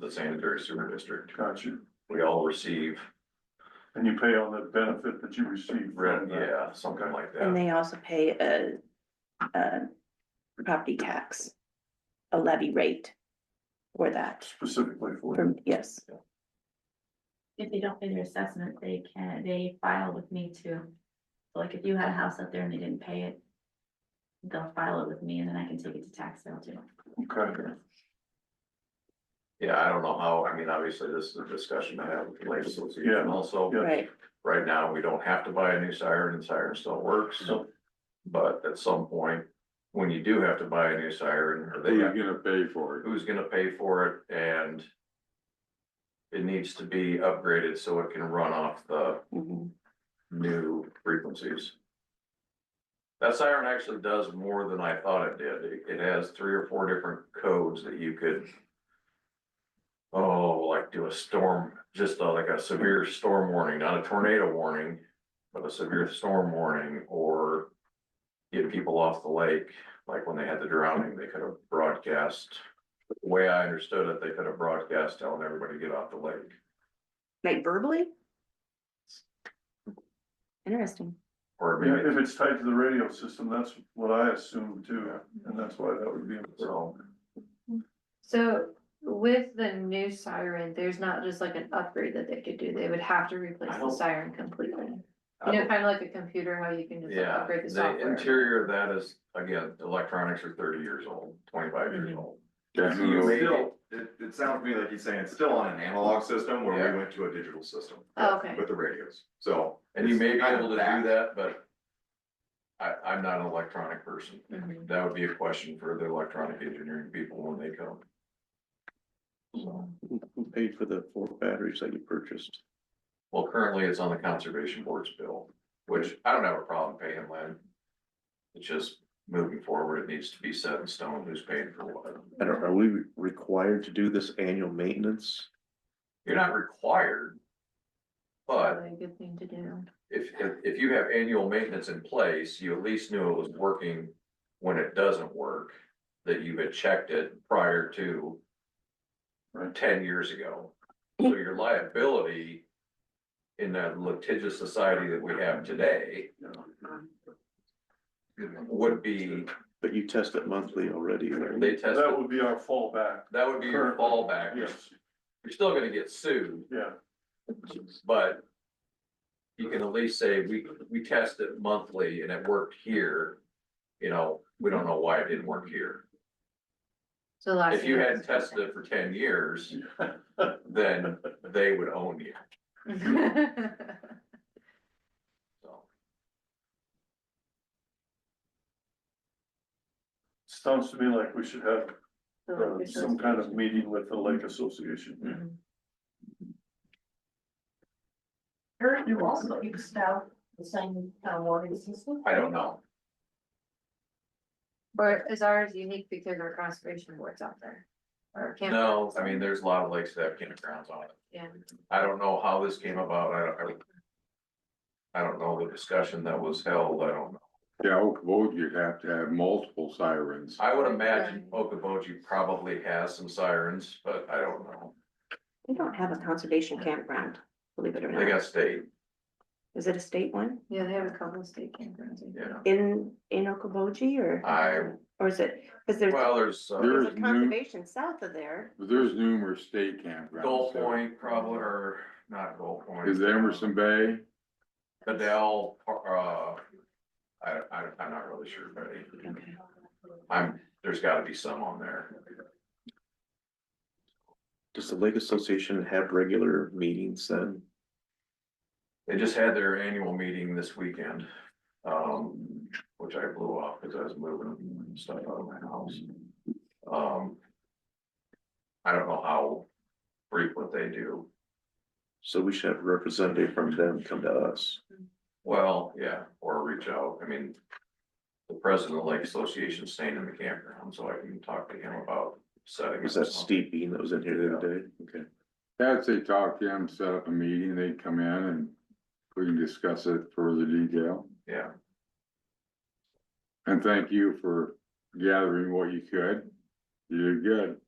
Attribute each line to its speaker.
Speaker 1: the sanitary sewer district.
Speaker 2: Gotcha.
Speaker 1: We all receive
Speaker 2: And you pay on the benefit that you receive. from
Speaker 1: rent,
Speaker 2: that.
Speaker 1: yeah, something like
Speaker 3: And
Speaker 1: that.
Speaker 3: they also pay a, a property tax, a levy rate for that,
Speaker 2: Specifically for.
Speaker 3: from, yes.
Speaker 4: If they don't pay their assessment, they can, they file with me too. So Like if you had a house out there and they didn't pay it. They'll file it with me and then I can take it to tax sale too.
Speaker 2: Okay.
Speaker 1: Yeah, I don't know how, I mean, obviously, this is a discussion I have with the lake association
Speaker 2: Yeah.
Speaker 1: also.
Speaker 2: Yeah.
Speaker 3: Right,
Speaker 1: Right now, we don't have to buy a new siren and siren still works.
Speaker 2: Yep.
Speaker 1: But at some point, when you do have to buy a new siren, or they have
Speaker 5: Who's gonna pay for it?
Speaker 1: who's gonna pay for it and. It needs to be upgraded so it can run off the
Speaker 3: mhm,
Speaker 1: new frequencies. That siren actually does more than I thought it did. It- It has three or four different codes that you could. Oh, like do a storm, just uh, like a severe storm warning, not a tornado warning, but a severe storm warning or. Get people off the lake, like when they had the drowning, they could have broadcast. The way I understood it, they could have broadcast telling everybody to get off the lake.
Speaker 3: like verbally? Interesting,
Speaker 1: Or
Speaker 2: Yeah,
Speaker 1: maybe,
Speaker 2: if it's tied to the radio system, that's what I assumed too, and that's why that would be.
Speaker 1: so,
Speaker 6: So with the new siren, there's not just like an upgrade that they could do, they would have to replace
Speaker 1: I
Speaker 6: the
Speaker 1: don't-
Speaker 6: siren completely.
Speaker 1: I don't-
Speaker 6: You know, kind of like a computer, how you can just like,
Speaker 1: Uh, Yeah,
Speaker 6: upgrade the
Speaker 1: the
Speaker 6: software.
Speaker 1: interior of that is, again, electronics are thirty years old, twenty-five
Speaker 6: Mm-hmm.
Speaker 1: years old.
Speaker 5: That's
Speaker 1: You
Speaker 5: who-
Speaker 1: may-
Speaker 7: Still, it, it sounds to me like he's saying it's still on an analog system where
Speaker 1: Yeah.
Speaker 7: we went to a digital system.
Speaker 6: Oh, okay.
Speaker 7: With the radios, so.
Speaker 1: And you may be
Speaker 7: it's kind of
Speaker 1: able to do
Speaker 7: back.
Speaker 1: that, but I, I'm not an electronic person.
Speaker 6: Mhm.
Speaker 1: That would be a question for the electronic engineering people when they come. So,
Speaker 8: Who paid for the four batteries that you purchased?
Speaker 1: Well, currently it's on the conservation board's bill, which I don't have a problem paying Lynn. It's just moving forward, it needs to be set in stone who's paying for what.
Speaker 8: I don't, are we required to do this annual maintenance?
Speaker 1: You're not required. But
Speaker 6: Probably a good thing to do.
Speaker 1: if, if, if you have annual maintenance in place, you at least knew it was working when it doesn't work, that you had checked it prior to
Speaker 2: Right.
Speaker 1: ten years ago. So your liability in that litigious society that we have today would be,
Speaker 8: But you test it monthly already, right?
Speaker 1: they test,
Speaker 2: That
Speaker 1: it-
Speaker 2: would be our fallback,
Speaker 1: that would be your fallback. You're
Speaker 2: yes,
Speaker 1: still gonna get sued,
Speaker 2: yeah,
Speaker 1: but you can at least say, we, we test it monthly and it worked here. You know, we don't know why it didn't work here.
Speaker 6: So last.
Speaker 1: If you
Speaker 6: year
Speaker 1: hadn't
Speaker 6: was-
Speaker 1: tested it for ten years, then they would own you, so.
Speaker 2: sounds to me like we should have
Speaker 6: So
Speaker 2: uh,
Speaker 1: Mm-hmm.
Speaker 6: like
Speaker 2: some kind of meeting with the lake association.
Speaker 6: Mhm.
Speaker 9: Eric, you also used out the same uh, warning system?
Speaker 1: I don't know.
Speaker 6: Or is ours unique because our conservation board's out there? Or can't.
Speaker 1: No, I mean, there's a lot of lakes that have campgrounds on it.
Speaker 6: Yeah.
Speaker 1: I don't know how this came about, I don't, I don't. I don't know the discussion that was held, I don't know.
Speaker 5: Yeah, Oak Vogue, you'd have to have multiple sirens.
Speaker 1: I would imagine Okoboji probably has some sirens, but I don't know.
Speaker 3: we don't have a conservation campground, believe it or
Speaker 1: They
Speaker 3: not,
Speaker 1: got state,
Speaker 3: is it a state one
Speaker 6: Yeah, they have a couple of state campgrounds. in
Speaker 1: Yeah.
Speaker 3: in, in Okoboji or?
Speaker 1: I-
Speaker 3: Or is it, cause there's,
Speaker 1: well, there's uh,
Speaker 5: There
Speaker 3: there's
Speaker 5: is
Speaker 3: a
Speaker 5: new-
Speaker 3: conservation south of there,
Speaker 5: There's numerous state campgrounds.
Speaker 1: Gold Point probably, or not Gold Point.
Speaker 5: Is Emerson Bay?
Speaker 1: Cadell, uh, I, I, I'm not really sure, but
Speaker 3: okay,
Speaker 1: I'm, there's gotta be some on there.
Speaker 8: Does the lake association have regular meetings then?
Speaker 1: They just had their annual meeting this weekend, um, which I blew off because I was moving stuff out of my house. Um, I don't know how frequent they do.
Speaker 8: So we should have a representative from them come to us.
Speaker 1: Well, yeah, or reach out. I mean, the president of the Lake Association staying in the campground, so I can talk to him about setting. up
Speaker 8: Was that
Speaker 1: something.
Speaker 8: Steve Bean that was in here the other day? Okay.
Speaker 5: Yeah, I'd say talk to them, set up a meeting, they'd come in and we can discuss it further detail.
Speaker 1: Yeah,
Speaker 5: And thank you for gathering what you could. You did good.